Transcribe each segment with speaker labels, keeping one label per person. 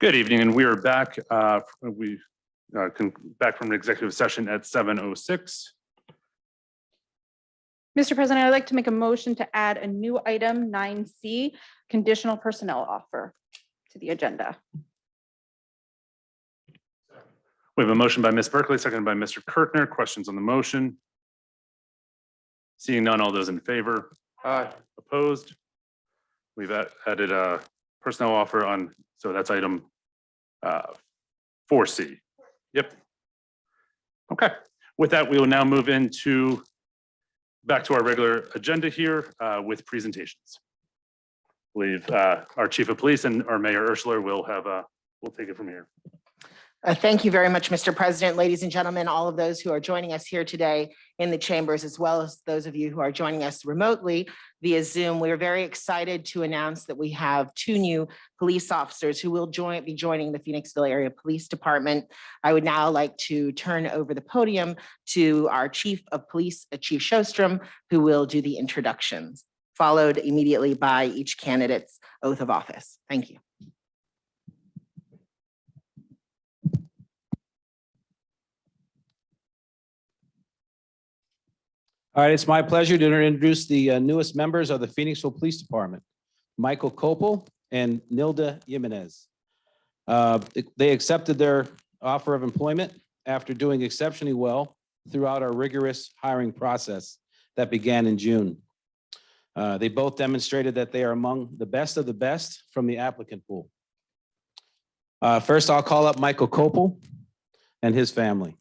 Speaker 1: Good evening, and we are back, uh, we, uh, con- back from an executive session at 7:06.
Speaker 2: Mr. President, I'd like to make a motion to add a new item nine C, conditional personnel offer to the agenda.
Speaker 1: We have a motion by Ms. Berkeley, seconded by Mr. Kirkner. Questions on the motion? Seeing none, all those in favor? Aye. Opposed? We've a- added a personnel offer on, so that's item uh, four C. Yep. Okay, with that, we will now move into, back to our regular agenda here uh, with presentations. Believe uh, our chief of police and our mayor Ursula will have, uh, will take it from here.
Speaker 3: Uh, Thank you very much, Mr. President. Ladies and gentlemen, all of those who are joining us here today in the chambers, as well as those of you who are joining us remotely via Zoom, we are very excited to announce that we have two new police officers who will join, be joining the Phoenixville Area Police Department. I would now like to turn over the podium to our Chief of Police, uh, Chief Shostrom, who will do the introductions, followed immediately by each candidate's oath of office. Thank you.
Speaker 4: All right, it's my pleasure to introduce the uh, newest members of the Phoenixville Police Department, Michael Copel and Nilda Jimenez. Uh, They accepted their offer of employment after doing exceptionally well throughout our rigorous hiring process that began in June. Uh, They both demonstrated that they are among the best of the best from the applicant pool. Uh, First, I'll call up Michael Copel and his family.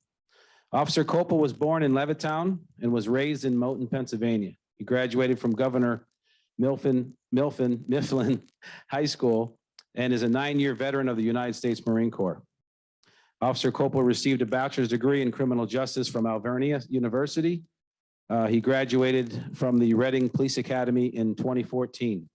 Speaker 4: Officer Copel was born in Levittown and was raised in Moton, Pennsylvania. He graduated from Governor Milfin, Milfin, Mifflin High School and is a nine-year veteran of the United States Marine Corps. Officer Copel received a bachelor's degree in criminal justice from Alvernia University. Uh, he graduated from the Reading Police Academy in 2014.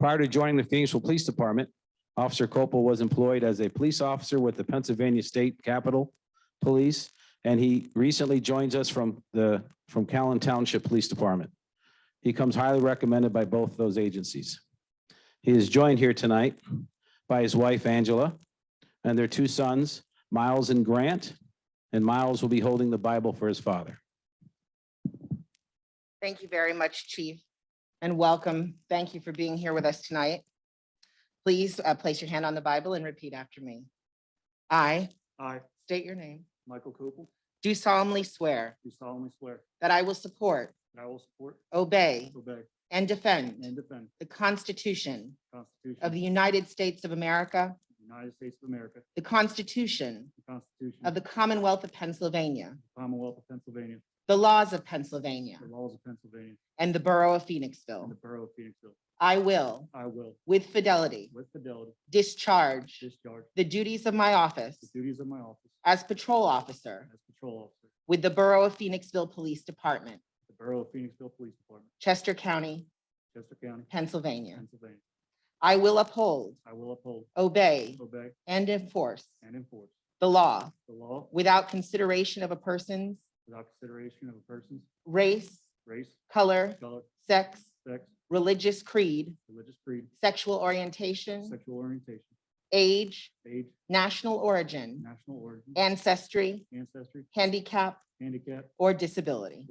Speaker 4: Prior to joining the Phoenixville Police Department, Officer Copel was employed as a police officer with the Pennsylvania State Capitol Police, and he recently joins us from the, from Callan Township Police Department. He comes highly recommended by both those agencies. He is joined here tonight by his wife Angela and their two sons, Miles and Grant, and Miles will be holding the Bible for his father.
Speaker 3: Thank you very much, Chief, and welcome. Thank you for being here with us tonight. Please uh, place your hand on the Bible and repeat after me. I
Speaker 5: I,
Speaker 3: state your name,
Speaker 5: Michael Koppel,
Speaker 3: do solemnly swear
Speaker 5: do solemnly swear
Speaker 3: that I will support,
Speaker 5: that I will support,
Speaker 3: obey,
Speaker 5: obey,
Speaker 3: and
Speaker 5: and
Speaker 3: defend
Speaker 5: defend
Speaker 3: the Constitution
Speaker 5: the Constitution
Speaker 3: of the United States of America,
Speaker 5: of the United States of America,
Speaker 3: the Constitution
Speaker 5: the Constitution
Speaker 3: of the Commonwealth of Pennsylvania,
Speaker 5: Commonwealth of Pennsylvania,
Speaker 3: the laws of Pennsylvania,
Speaker 5: the laws of Pennsylvania,
Speaker 3: and the Borough of
Speaker 5: and the
Speaker 3: Phoenixville.
Speaker 5: Borough of Phoenixville.
Speaker 3: I will,
Speaker 5: I will,
Speaker 3: with fidelity,
Speaker 5: with fidelity,
Speaker 3: discharge
Speaker 5: discharge
Speaker 3: the duties of my office
Speaker 5: the duties of my office
Speaker 3: as patrol officer
Speaker 5: as patrol officer,
Speaker 3: with the Borough of Phoenixville Police Department,
Speaker 5: the Borough of Phoenixville Police Department,
Speaker 3: Chester County,
Speaker 5: Chester County,
Speaker 3: Pennsylvania.
Speaker 5: Pennsylvania.
Speaker 3: I will uphold,
Speaker 5: I will uphold,
Speaker 3: obey,
Speaker 5: obey,
Speaker 3: and enforce
Speaker 5: and enforce
Speaker 3: the law
Speaker 5: the law
Speaker 3: without consideration of a person's
Speaker 5: without consideration of a person's
Speaker 3: race,
Speaker 5: race,
Speaker 3: color,
Speaker 5: color,
Speaker 3: sex,
Speaker 5: sex,
Speaker 3: religious creed,
Speaker 5: religious creed,
Speaker 3: sexual orientation,
Speaker 5: sexual orientation,
Speaker 3: age,
Speaker 5: age,
Speaker 3: national origin,
Speaker 5: national origin,
Speaker 3: ancestry,
Speaker 5: ancestry,
Speaker 3: handicap,
Speaker 5: handicap,
Speaker 3: or disability.